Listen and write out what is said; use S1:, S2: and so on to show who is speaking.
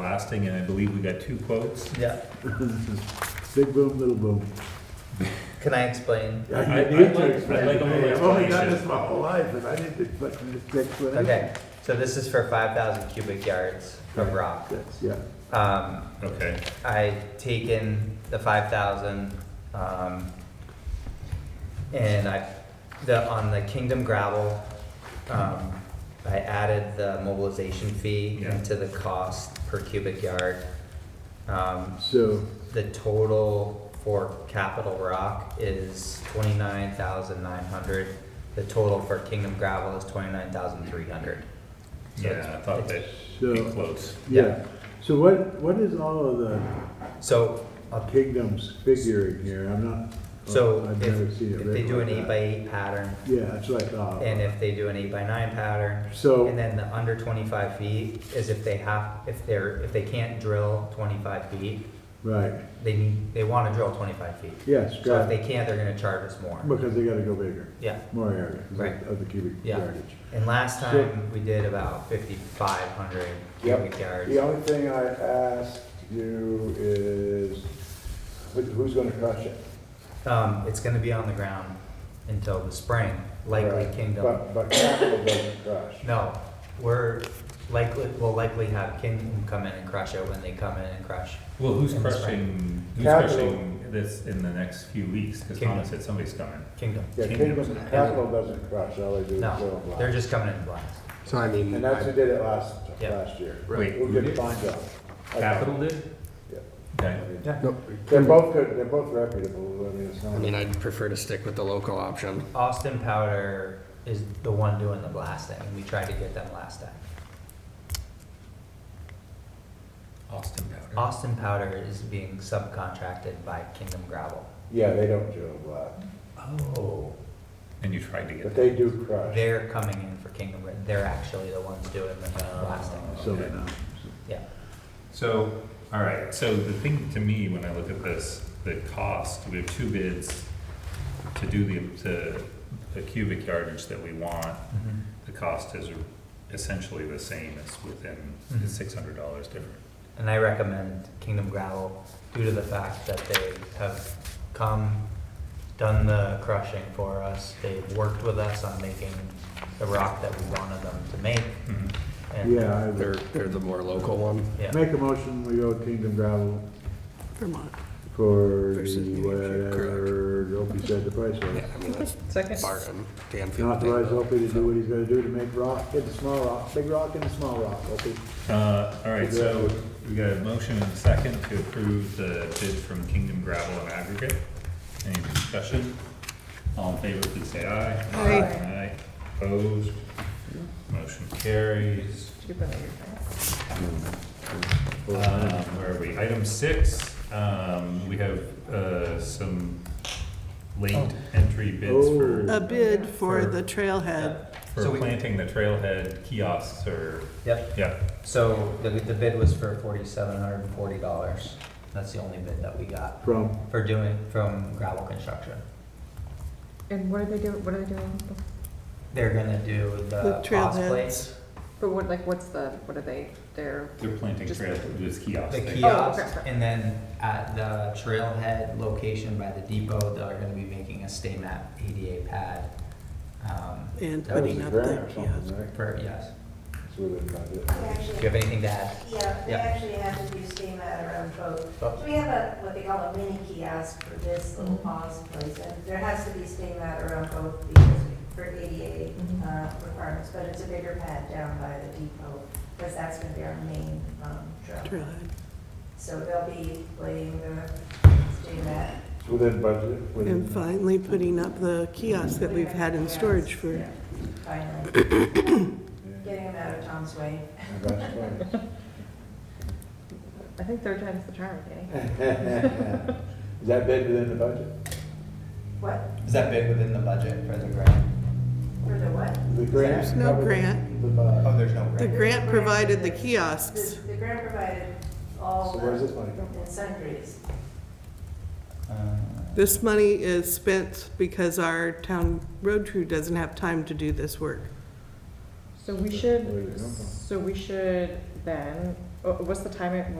S1: blasting, and I believe we got two quotes.
S2: Yeah,
S3: Big boom, little boom.
S2: can I explain?
S3: Yeah,
S1: I-
S3: you need
S1: I'd
S3: to
S1: like- I'd
S3: explain
S1: like
S3: it.
S1: a little
S3: I've only done this
S1: explanation.
S3: my whole life, and I need to explain this explanation.
S2: Okay, so this is for five thousand cubic yards of rock.
S3: That's, yeah.
S2: Um,
S1: Okay,
S2: I taken the five thousand, um, and I, the, on the Kingdom gravel, um, I added the mobilization fee
S1: Yeah.
S2: into the cost per cubic yard. Um,
S3: So,
S2: the total for Capital Rock is twenty-nine thousand nine hundred. The total for Kingdom gravel is twenty-nine thousand three hundred.
S1: yeah, I thought that'd
S3: so,
S1: be close.
S3: yeah. So what, what is all of the
S2: So, I'll
S3: kingdoms figuring here? I'm not,
S2: So
S3: Oh, I've
S2: if,
S3: never seen it
S2: if they
S3: written
S2: do an
S3: like
S2: eight by
S3: that.
S2: eight pattern,
S3: Yeah, that's what I thought.
S2: and if they do an eight by nine pattern, and
S3: So,
S2: then the under twenty-five feet is if they have, if they're, if they can't drill twenty-five feet,
S3: right,
S2: they need, they wanna drill twenty-five feet.
S3: yes,
S2: So if
S3: got
S2: they
S3: it.
S2: can't, they're gonna charge us more.
S3: Because they gotta go bigger,
S2: Yeah,
S3: more area, 'cause
S2: Right.
S3: of the cubic
S2: Yeah.
S3: yardage.
S2: and last
S3: Sure.
S2: time, we did about fifty-five hundred
S3: Yep.
S2: cubic yards.
S3: The only thing I ask you is, who- who's gonna crush it?
S2: Um, it's gonna be on the ground until the spring, likely
S3: Right.
S2: Kingdom.
S3: But, but capital doesn't crush.
S2: No, we're likely, we'll likely have Kingdom come in and crush it when they come in and crush.
S1: Well, who's
S2: And that's
S1: crushing, who's
S3: Capital.
S1: crushing this in the next few weeks? Because
S2: Kingdom.
S1: Thomas said somebody's coming.
S2: Kingdom.
S3: Yeah,
S1: Kingdom's
S3: Kingdom, capital doesn't crush, all they do is
S2: No,
S3: fill
S2: they're
S3: blocks.
S2: just coming in blast.
S4: So I mean,
S3: And that's who
S4: I-
S3: did it last,
S2: Yeah.
S3: last year.
S1: Wait,
S3: Who
S1: who
S3: did
S1: did?
S3: fine job. Okay.
S1: Capital did?
S3: Yeah.
S1: Okay,
S4: no,
S3: They're both good, they're both reputable, I mean, it's
S4: I mean,
S3: not,
S4: I'd prefer to stick with the local option.
S2: Austin Powder is the one doing the blasting, and we tried to get them last time.
S1: Austin Powder.
S2: Austin Powder is being subcontracted by Kingdom Gravel.
S3: yeah, they don't drill block,
S2: Oh.
S1: And you tried to
S3: but
S1: get,
S3: they do crush.
S2: They're coming in for Kingdom, Gra- they're actually the ones doing the blasting,
S1: So they're
S3: not.
S2: yeah.
S1: so, all right, so the thing to me, when I look at this, the cost, we have two bids to do the, to the cubic yardage that we want. The cost is essentially the same, it's within,
S2: Mhm.
S1: it's six hundred dollars different.
S2: And I recommend Kingdom Gravel due to the fact that they have come, done the crushing for us. They've worked with us on making the rock that we wanted them to make.
S1: Mhm.
S2: And-
S3: Yeah, I
S4: They're,
S3: would.
S4: they're the more local one.
S2: Yeah.
S3: Make a motion, we go Kingdom Gravel
S4: Vermont.
S3: for
S4: Versus New
S3: the,
S4: Hampshire,
S3: whatever, Opie said the price
S4: Yeah,
S3: was.
S4: I mean, that's um,
S2: Second.
S4: bargain.
S3: And
S4: Danfield.
S3: Authorize
S4: Danville.
S3: Opie to do what he's gonna do to make rock, get the small rock, big rock and the small rock, Opie.
S1: Uh, all right, so we got a motion and a second to approve the bid from Kingdom Gravel and Aggregate. Any discussion? All in favor, please say aye. Aye. Opposed? Motion carries. Um, where are we? Item six, um, we have, uh, some late entry bids
S3: Oh.
S1: for,
S5: A bid for
S2: For-
S5: the trailhead.
S1: for
S2: Uh, So we-
S1: planting the trailhead kiosks or,
S2: Yep,
S1: yeah.
S2: so the, the bid was for forty-seven hundred and forty dollars. That's the only bid that we got
S3: From
S2: for doing, from gravel construction.
S6: And what are they doing, what are they doing,
S2: They're gonna do the
S5: The
S2: boss
S5: trailheads.
S2: plates,
S6: but what, like, what's the, what are they, they're,
S1: They're planting
S6: Just-
S1: trailhead, this kiosk.
S2: the
S1: thing.
S2: kiosks,
S6: okay.
S2: and then at the trailhead location by the depot, they're gonna be making a stay map ADA pad. um,
S5: And
S3: That was
S5: putting
S3: a
S5: up
S3: grant
S5: the
S3: or
S5: kiosk.
S3: something, right?
S2: For, yes,
S3: That's what it might be.
S7: We
S2: do
S7: actually-
S2: you have anything to add?
S7: Yeah, we
S2: Yeah.
S7: actually have to do steam at our own boat.
S2: Oh.
S7: So we have a, what they call a mini kiosk for this little
S5: Mm-hmm.
S7: pause place, and there has to be steam at our own boat because for ADA
S5: Mm-hmm.
S7: uh, requirements, but it's a bigger pad down by the depot, because that's gonna be our main um, trail.
S5: Trailhead.
S7: So they'll be laying the steam at.
S3: It's within budget. within-
S5: And finally putting up the kiosk that we've had in storage for,
S7: Yeah, Finally,
S3: Yeah,
S7: getting them out of Tom's way.
S3: and that's fine.
S6: I think third time's the charm, Danny.
S3: Is that bid within the budget?
S7: What,
S2: Is that bid within the budget for the grant?
S7: for the what?
S3: The
S5: There's no
S3: covered
S5: grant.
S3: the bond.
S2: Oh, there's no
S5: the
S2: grant.
S5: grant provided the
S7: The
S5: kiosks.
S7: the grant provided all
S3: So where's this
S7: the,
S3: money come from?
S7: and sundries.
S2: Uh,
S5: This money is spent because our town road crew doesn't have time to do this work.
S6: So we
S3: Where did it
S6: should,
S3: come from?
S6: so we should then Wha- What's the timing,